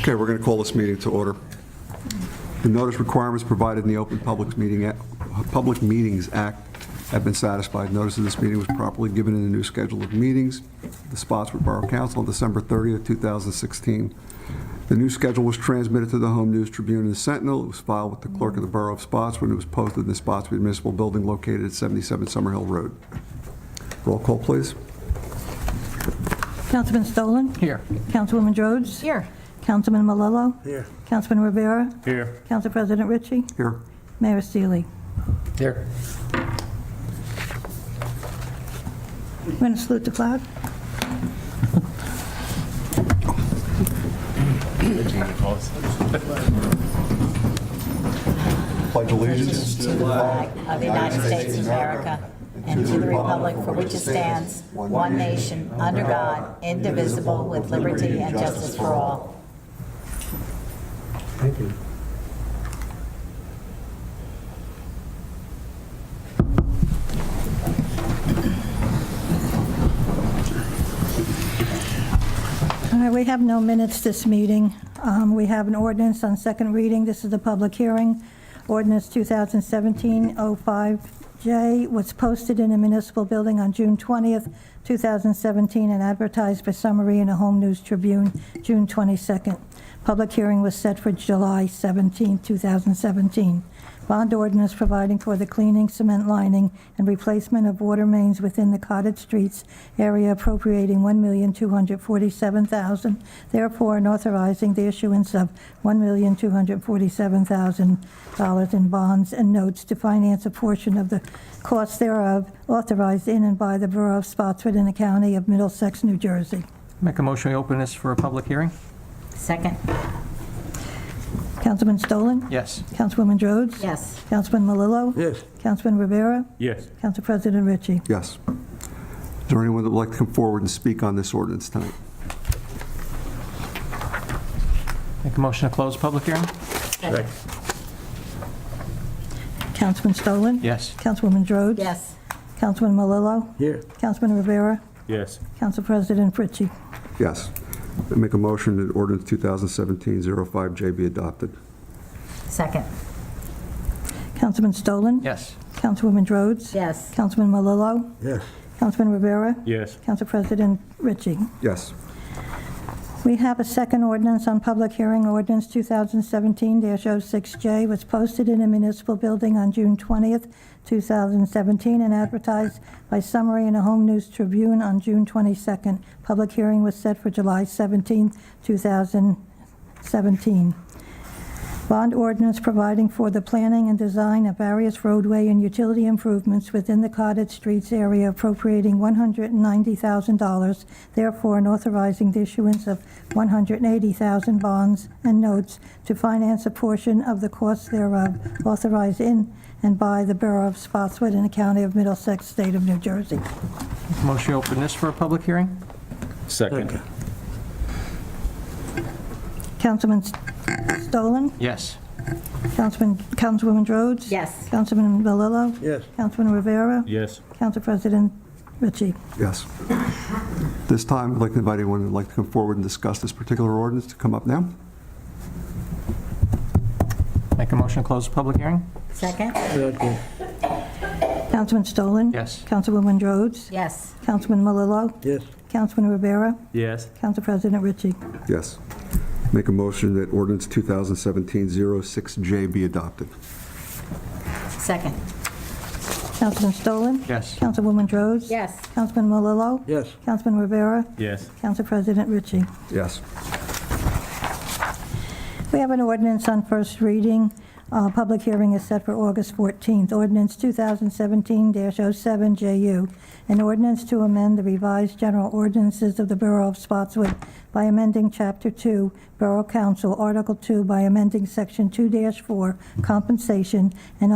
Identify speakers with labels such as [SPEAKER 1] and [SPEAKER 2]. [SPEAKER 1] Okay, we're going to call this meeting to order. The notice requirements provided in the Open Public Meeting, Act- Public Meetings Act have been satisfied. Notice of this meeting was properly given in the new schedule of meetings. The spots were Borough Council on December 30th, 2016. The new schedule was transmitted to the Home News Tribune and the Sentinel. It was filed with the clerk of the Borough of Spotswood, and it was posted in the Spotswood Municipal Building located at 77 Summerhill Road. Roll call, please.
[SPEAKER 2] Councilman Stolen?
[SPEAKER 3] Here.
[SPEAKER 2] Councilwoman Rhodes?
[SPEAKER 4] Here.
[SPEAKER 2] Councilman Malillo?
[SPEAKER 5] Here.
[SPEAKER 2] Councilman Rivera?
[SPEAKER 5] Here.
[SPEAKER 2] Council President Ritchie?
[SPEAKER 1] Here.
[SPEAKER 2] Mayor Sealy?
[SPEAKER 3] Here.
[SPEAKER 2] We're going to salute the flag.
[SPEAKER 1] Pledge allegiance
[SPEAKER 4] to the flag of the United States of America and to the republic for which it stands, one nation, under God, indivisible, with liberty and justice for all.
[SPEAKER 5] Thank you.
[SPEAKER 2] All right, we have no minutes this meeting. Um, We have an ordinance on second reading. This is the public hearing. Ordinance 2017-05J was posted in a municipal building on June 20th, 2017, and advertised for summary in a Home News Tribune, June 22nd. Public hearing was set for July 17, 2017. Bond ordinance providing for the cleaning, cement lining, and replacement of water mains within the cottage streets area appropriating $1,247,000, therefore and authorizing the issuance of $1,247,000 in bonds and notes to finance a portion of the costs thereof authorized in and by the Borough of Spotswood in the County of Middlesex, New Jersey.
[SPEAKER 3] Make a motion, we open this for a public hearing?
[SPEAKER 4] Second?
[SPEAKER 2] Councilman Stolen?
[SPEAKER 3] Yes.
[SPEAKER 2] Councilwoman Rhodes?
[SPEAKER 4] Yes.
[SPEAKER 2] Councilman Malillo?
[SPEAKER 5] Yes.
[SPEAKER 2] Councilman Rivera?
[SPEAKER 5] Yes.
[SPEAKER 2] Council President Ritchie.
[SPEAKER 1] Yes. Is there anyone that would like to come forward and speak on this ordinance tonight?
[SPEAKER 3] Make a motion to close public hearing?
[SPEAKER 5] Second.
[SPEAKER 2] Councilman Stolen?
[SPEAKER 3] Yes.
[SPEAKER 2] Councilwoman Rhodes?
[SPEAKER 4] Yes.
[SPEAKER 2] Councilman Malillo?
[SPEAKER 5] Here.
[SPEAKER 2] Councilman Rivera?
[SPEAKER 5] Yes.
[SPEAKER 2] Council President Ritchie.
[SPEAKER 1] Yes. I Make a motion that ordinance 2017-05J be adopted.
[SPEAKER 4] Second?
[SPEAKER 2] Councilman Stolen?
[SPEAKER 3] Yes.
[SPEAKER 2] Councilwoman Rhodes?
[SPEAKER 4] Yes.
[SPEAKER 2] Councilman Malillo?
[SPEAKER 5] Yes.
[SPEAKER 2] Councilman Rivera?
[SPEAKER 5] Yes.
[SPEAKER 2] Council President Ritchie.
[SPEAKER 1] Yes.
[SPEAKER 2] We have a second ordinance on public hearing, ordinance 2017-06J, was posted in a municipal building on June 20th, 2017, and advertised by summary in a Home News Tribune on June 22nd. Public hearing was set for July 17th, 2017. Bond ordinance providing for the planning and design of various roadway and utility improvements within the Cottage Streets area appropriating $190,000, therefore and authorizing the issuance of 180,000 bonds and notes to finance a portion of the costs thereof authorized in and by the Borough of Spotswood in the County of Middlesex, State of New Jersey.
[SPEAKER 3] Make a motion, we open this for a public hearing?
[SPEAKER 5] Second.
[SPEAKER 2] Councilman Stolen?
[SPEAKER 3] Yes.
[SPEAKER 2] Councilman, Councilwoman Rhodes?
[SPEAKER 4] Yes.
[SPEAKER 2] Councilman Valillo?
[SPEAKER 5] Yes.
[SPEAKER 2] Councilman Rivera?
[SPEAKER 5] Yes.
[SPEAKER 2] Council President Ritchie.
[SPEAKER 1] Yes. This time, I'd like to invite anyone who'd like to come forward and discuss this particular ordinance to come up now.
[SPEAKER 3] Make a motion to close the public hearing?
[SPEAKER 4] Second?
[SPEAKER 5] Second.
[SPEAKER 2] Councilman Stolen?
[SPEAKER 3] Yes.
[SPEAKER 2] Councilwoman Rhodes?
[SPEAKER 4] Yes.
[SPEAKER 2] Councilman Malillo?
[SPEAKER 5] Yes.
[SPEAKER 2] Councilman Rivera?
[SPEAKER 5] Yes.
[SPEAKER 2] Council President Ritchie.
[SPEAKER 1] Yes. Make a motion that ordinance 2017-06J be adopted.
[SPEAKER 4] Second?
[SPEAKER 2] Councilman Stolen?
[SPEAKER 3] Yes.
[SPEAKER 2] Councilwoman Rhodes?
[SPEAKER 4] Yes.
[SPEAKER 2] Councilman Malillo?
[SPEAKER 5] Yes.
[SPEAKER 2] Councilman Rivera?
[SPEAKER 5] Yes.
[SPEAKER 2] Council President Ritchie.
[SPEAKER 1] Yes.
[SPEAKER 2] We have an ordinance on first reading. Uh, Public hearing is set for August 14th. Ordinance 2017-07JU, an ordinance to amend the revised general ordinances of the Borough of Spotswood by amending Chapter 2, Borough Council, Article 2, by amending Section 2-4, compensation, and